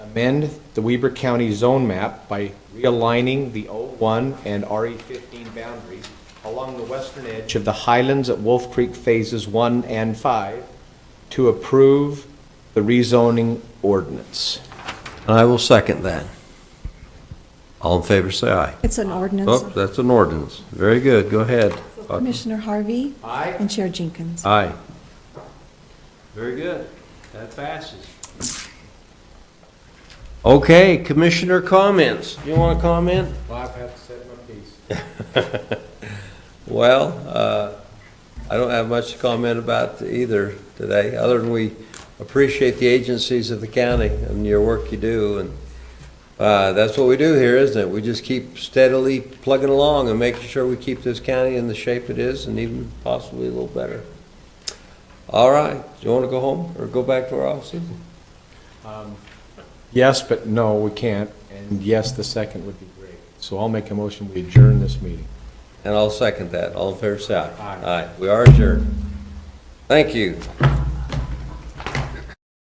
amend the Weber County zone map by realigning the O1 and RE15 boundaries along the western edge of the Highlands at Wolf Creek Phases 1 and 5 to approve the rezoning ordinance. And I will second that. All in favor, say aye. It's an Oh, ordinance. that's an ordinance. Very good, go ahead. Commissioner Harvey Aye. and Chair Jenkins. Aye. Very good, that passes. Okay, commissioner comments. You want to comment? Well, I've had to set my piece. Well, uh, I don't have much to comment about either today, other than we appreciate the agencies of the county and your work you do, and uh, that's what we do here, isn't it? We just keep steadily plugging along and making sure we keep this county in the shape it is, and even possibly a little better. All right, do you want to go home or go back to our offices? Yes, but no, we can't, and yes, the second would be great. So I'll make a motion, we adjourn this meeting. And I'll second that. All in favor, say aye. Aye. We are adjourned. Thank you.